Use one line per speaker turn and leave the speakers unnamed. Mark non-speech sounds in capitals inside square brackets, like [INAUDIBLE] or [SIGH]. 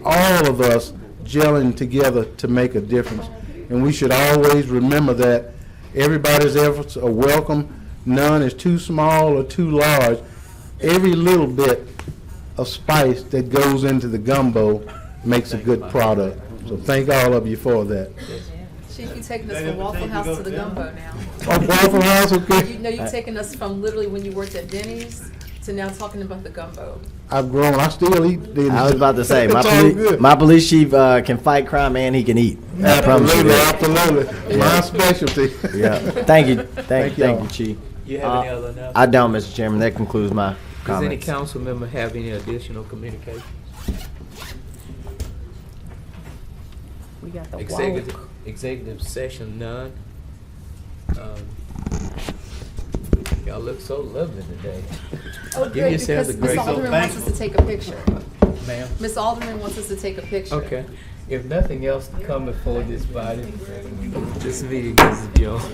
all of us gelling together to make a difference. And we should always remember that everybody's efforts are welcome. None is too small or too large. Every little bit of spice that goes into the gumbo makes a good product. So thank all of you for that.
Chief, you're taking us from Waffle House to the gumbo [LAUGHS] now.
Oh, Waffle House,
You
okay?
know, you're taking us from literally when you worked at Denny's to now talking about the gumbo.
I've grown, I still eat. the-
I was about to say, my,
It's all
poli-
good.
my police chief uh, can fight crime and he can eat. I promise you
Absolutely,
that.
absolutely. My specialty. [LAUGHS]
Yeah. Thank you. Thank,
Thank
you,
y'all.
thank you, chief.
You have any
Uh,
other announcements?
I don't, Mr. Chairman. That concludes my
Does any
comments.
council member have any additional communication?
We got the
Executive, executive session, none. Um, Y'all look so lovely today. [LAUGHS]
Oh,
Give
good, because
yourselves a
Ms.
great-
Alderman wants us to take a picture.
Ma'am?
Ms. Alderman wants us to take a picture.
Okay. If nothing else to come before this body, this meeting is adjourned.